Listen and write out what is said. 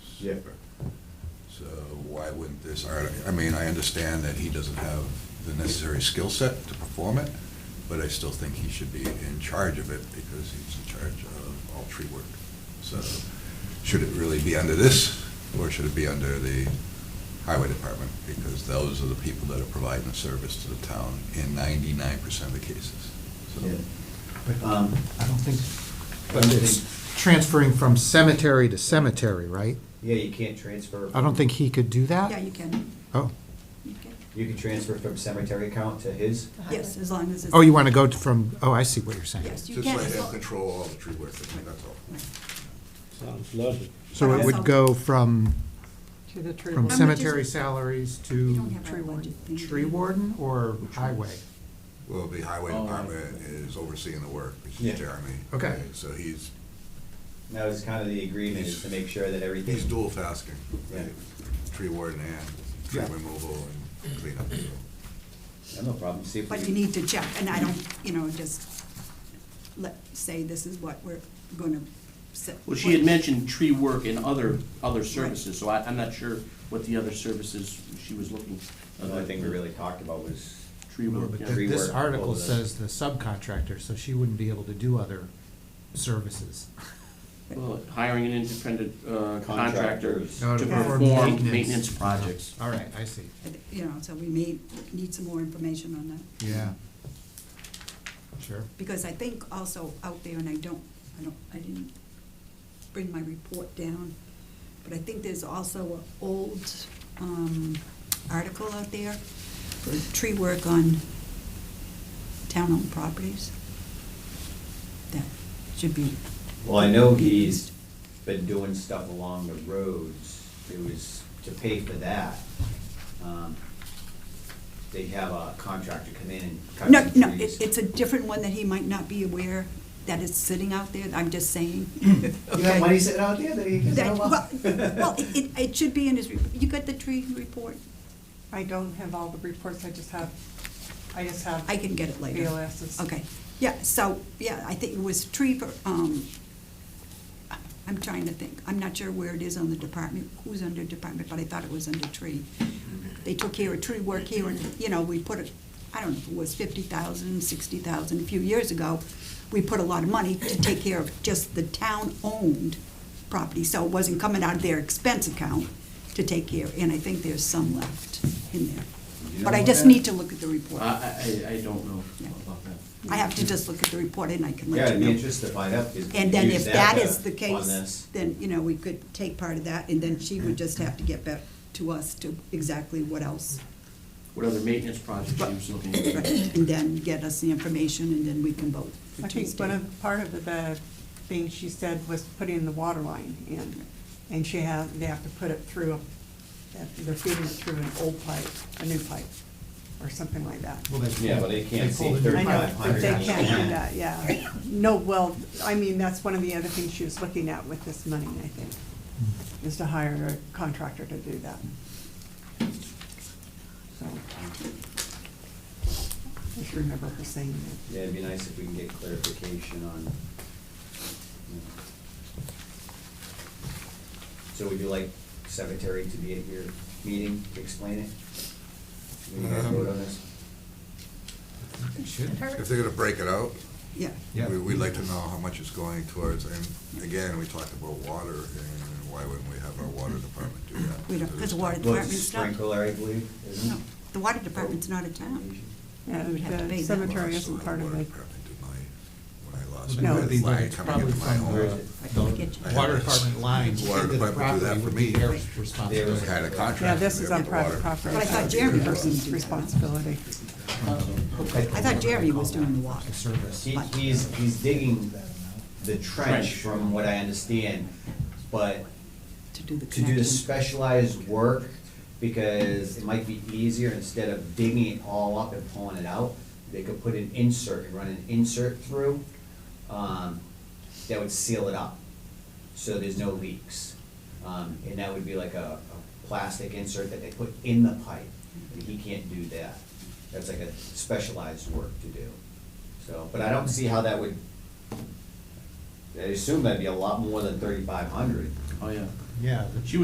Yeah. So why wouldn't this, art- I mean, I understand that he doesn't have the necessary skill set to perform it, but I still think he should be in charge of it because he's in charge of all tree work. So should it really be under this or should it be under the highway department? Because those are the people that are providing the service to the town in ninety-nine percent of the cases. So Yeah. But Um, I don't think, but I but it's transferring from cemetery to cemetery, right? Yeah, you can't transfer, I don't think he could do that? Yeah, you can, Oh, you can, you can transfer from cemetery account to his. yes, as long as it's. oh, you want to go to from, oh, I see what you're saying. Yes, you Just can. let as him long- control all the tree work, I think that's all. Sounds lovely. So it would go from, To the tree from board. How much is cemetery it? salaries You to don't have Tree our budget thing. tree warden or highway? Well, the highway Oh, department is overseeing the work, which Yeah. is Jeremy. Okay. So he's, That was kind of the agreement, is to make sure that everything. he's dual tasking, Yeah. tree warden and tree Yeah. removal and cleanup. so. Yeah, No problem, see if we. But you need to check, and I don't, you know, just let, say this is what we're gonna. set- Well, she had mentioned tree work and other, other services, so I, I'm not sure what the other services she was looking. The only thing we really talked about was, Tree No, work, but yeah. th- This Rework all article of this. says the subcontractor, so she wouldn't be able to do other services. Well, hiring an independent uh, contractor Contractors. No, to to perform perform maintenance. maintenance projects. All right, I see, You know, so we may need some more information on that. yeah. Sure. because I think also out there, and I don't, I don't, I didn't bring my report down, but I think there's also an old um, article out there for tree work on town-owned properties. That should be, well, I know he's been doing stuff along the roads, it was to pay for that. um, They have a contractor come in and cut no, some trees. no, it- it's a different one that he might not be aware that is sitting out there, I'm just saying. Hmm. You have okay? money sitting out there that he can That- sell Well, off? well, it- it, it should be in his, re- you got the tree report? I don't have all the reports, I just have, I just have. I can get it later. BLS's. Okay, yeah, so, yeah, I think it was tree, per- um, I'm trying to think, I'm not sure where it is on the department, who's under department, but I thought it was under tree. They took care of tree work here, and, you know, we put it, I don't know if it was fifty thousand, sixty thousand, a few years ago, we put a lot of money to take care of just the town-owned property, so it wasn't coming out of their expense account to take care, and I think there's some left in there. You But I know just that? need to look at the I, report. I, I- I don't know about that. I have to just look at the report and I can Yeah, let it'd you be know. interesting to find out. 'cause we And then use if that to- is the On case, this. then, you know, we could take part of that, and then she would just have to get back to us to exactly what else. What other maintenance projects she was looking at. And then get us the information, and then we can vote for I think Tuesday. one of, part of the thing she said was putting the water line in, and she have, they have to put it through, a- they're feeding it through an old pipe, a new pipe, or something like that. Well, they- Yeah, but they can't they see pulled a new I know, pipe. but 3,500. they can't do that, yeah. No, well, I mean, that's one of the other things she was looking at with this money, I think, is to hire a contractor to do that. So. I just remember her saying that. Yeah, it'd be nice if we can get clarification on. you know. So would you like secretary to be at your meeting to explain it? When you guys vote on this? They should. If they're gonna break it out, Yeah, Yeah. we- we'd like to know how much it's going towards, and again, we talked about water, and why wouldn't we have our water department do that? we don't, because the water Well, it's department's not, sprinkler, I believe, isn't no, it? the water department's not a town. Yeah, We'd have to pay the that. Well, I cemetery still isn't have part of water it. department do my- when I lost No, my it'd be- but line it's coming probably into my from home. the, the water department lines. Water into the department do that property for would me. be their Right. responsibility. They Had a contract. Yeah, this is on with private water. property. But I thought Jeremy Person's was- responsibility. I thought Jeremy was doing the water. Service. He, he's, he's digging the trench, from what I understand, but To do the to do the connection. specialized work, because it might be easier, instead of digging it all up and pulling it out, they could put an insert, and run an insert through, um, that would seal it up, so there's no leaks. Um, and that would be like a, a plastic insert that they put in the pipe, and he can't do that. That's like a specialized work to do, so, but I don't see how that would, I assume that'd be a lot more than thirty-five hundred. Oh, yeah. Yeah, the- She